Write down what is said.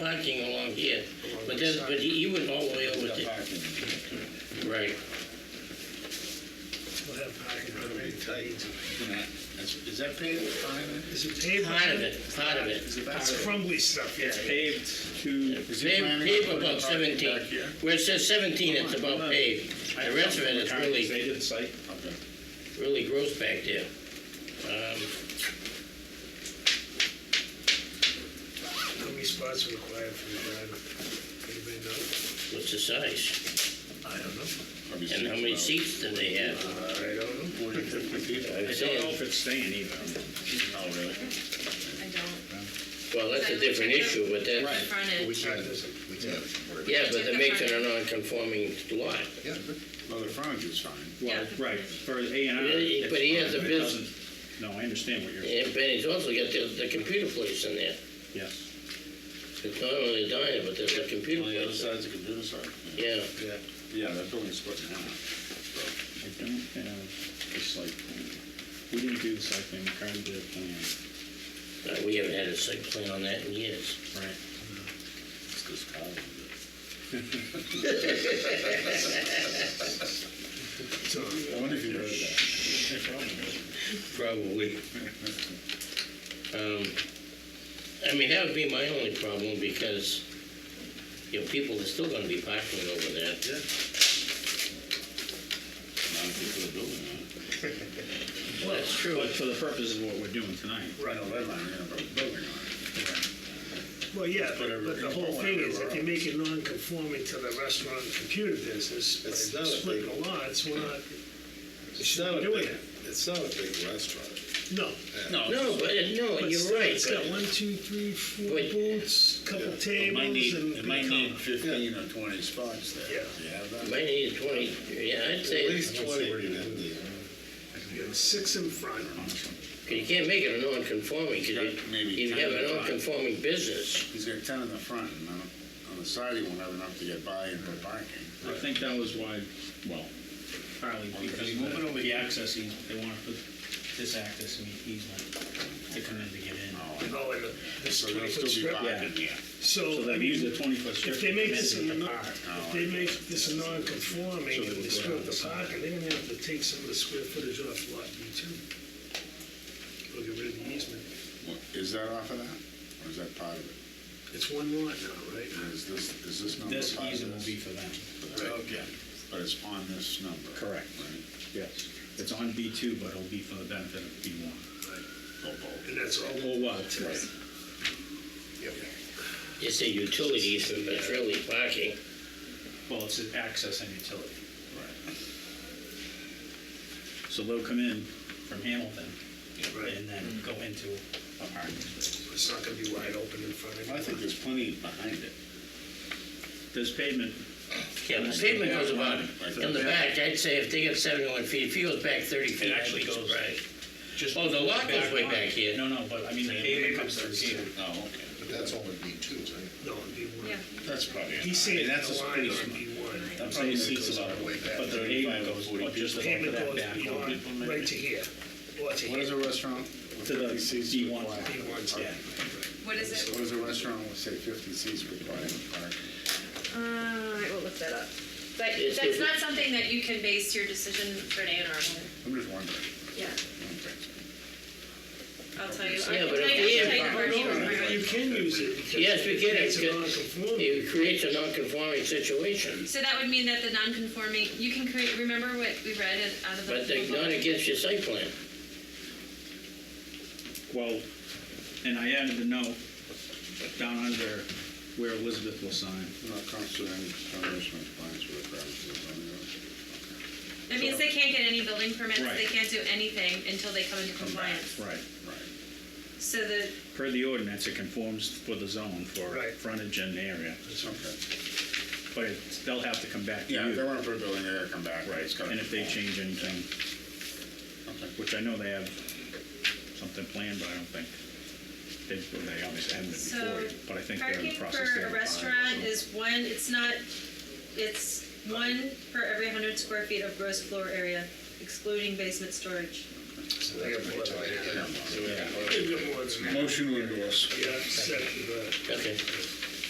parking along here, but then, but he he went all the way over Got to, parking. right. We'll have parking for the tight. That's- Is that paved with pavement? Is it paved? Part of it, part of it. Is it That's paved? crumbly stuff, yeah. It's paved to, Is he Paved, planning paved on putting about parking seventeen, back here? where it says seventeen, it's about paved. The rest of it is really, they did the site. Okay. really gross back there. Um, How many spots are required for the driver? Anybody know? What's the size? I don't know. Probably And how six many about seats do they have? I don't know. 40, 50 people. I don't know if it's staying either. Oh, really? I don't. Well, that's a different issue, but The that, front end. That doesn't. yeah, but that makes it a non-conforming lot. Well, the frontage is fine. Yeah. Well, right, for A and R. But he- it's but he fine, has a it bus- doesn't- No, I understand what you're, And Benny's also got the, the computer place in there. yes. It's not only the diner, but there's a computer On the other place. side's a computer side. Yeah, Yeah, that building's split in half. I don't have the site plan. We didn't do the site plan, Karen did a plan, Uh, we haven't had a site plan on that in years. right? It's just cotton. So, I wonder if you heard that. Probably. Um, I mean, that would be my only problem because, you know, people are still gonna be parking over there. Not if you put a building on it. That's true. But for the purposes of what we're doing tonight, Right, no, that line, yeah, but a building on it. well, yeah, Put every- but the whole thing is, if you make it non-conforming to the restaurant and computer business, by It's not a big- splitting the lots, we're not It's not a doing big, it. it's not a big restaurant. No. No, but, it- no, But you're still, right, It's got but one, two, three, four Wait. booths, couple It might need, tables and. it might need fifteen or twenty spots there. Yeah. Do you have that? might need a twenty, yeah, I'd At say, least twenty would be Yeah, Six in front. you can't make it a non-conforming, 'cause you, Maybe you ten have at a a time. non-conforming business. He's got ten in the front, and on, on the side, he won't have enough to get by and put parking. I think that was why, well, partly because of Moving over the- the here. access, eas- they want to put this access in the easement to come in to get in. And all in the- this So there'll 20 still foot be strip. parking there. So So, I they've used mean, the twenty foot strip. if they make to this, a come in non- to park. if they make this a non-conforming, and they screw up the parking, they're gonna have to take some of the square footage off lot B two. Or get rid of the easement. What- Is that off of that, or is that part of it? It's one lot now, right? Is this, is this number This part of easement will be this? for them. Okay, but it's on this number. Correct. Right, Yes. It's on B two, but it'll be for the benefit of B one. Go bold. And that's all. Or what? It's a utility easement, but it's really parking. Well, it's an access and utility. So they'll come in from Hamilton Right, and then go into a parking space. it's not gonna be wide open in front of Well, I think you. there's plenty behind it. There's pavement, Yeah, the pavement goes about, in the back, I'd say if they get seventy-one feet, if he goes back thirty feet, I'd actually be goes- surprised. just. Oh, the lot goes way on. back here. No, no, but I mean, the pavement comes through here. Oh, okay. But that's only B two, right? No, it'd be Yeah. one. That's probably. He's I mean, saying that's the a line space. on B one. I'm saying seats about, but the pavement goes, but just above Payment that goes back one. beyond, right to here, or to here. What is a restaurant? with To the 50 seats B1. required? B1's Yeah. What is it? What is a restaurant with, say, fifty seats required in parking? Uh, I will look that up. But It's that's different. not something that you can base your decision for an A and R on. I'm just wondering. Yeah, I'll tell you. I Yeah, can but tell if you- we I can have- tell you where you are. You can use it. because Yes, we can, It's a because- non-conforming. It creates a non-conforming situation, So that would mean that the non-conforming, you can create, remember what we read in- out of the. but they're not against your site plan. Well, and I added the note down under where Elizabeth will sign. Not constitute any establishment compliance with the parameters of the zoning ordinance. That means they can't get any building permits, Right. they can't do anything until they come into compliance. Right. Right. So the, Per the ordinance, it conforms for the zone for Right. frontage and area, Okay. but it- they'll have to come back to Yeah, if they you. want to put a building there, come back. Right, It's gotta and if they conform. change anything, Okay. which I know they have something planned, but I don't think, they, well, they obviously haven't before, So, yet, but I think they're in parking the process. for they a have to file, restaurant so. is one, it's not, it's one for every hundred square feet of gross floor area, excluding basement storage. So they got more than that. Yeah. They got more than that. Motion to endorse. Yeah, second, uh, Okay.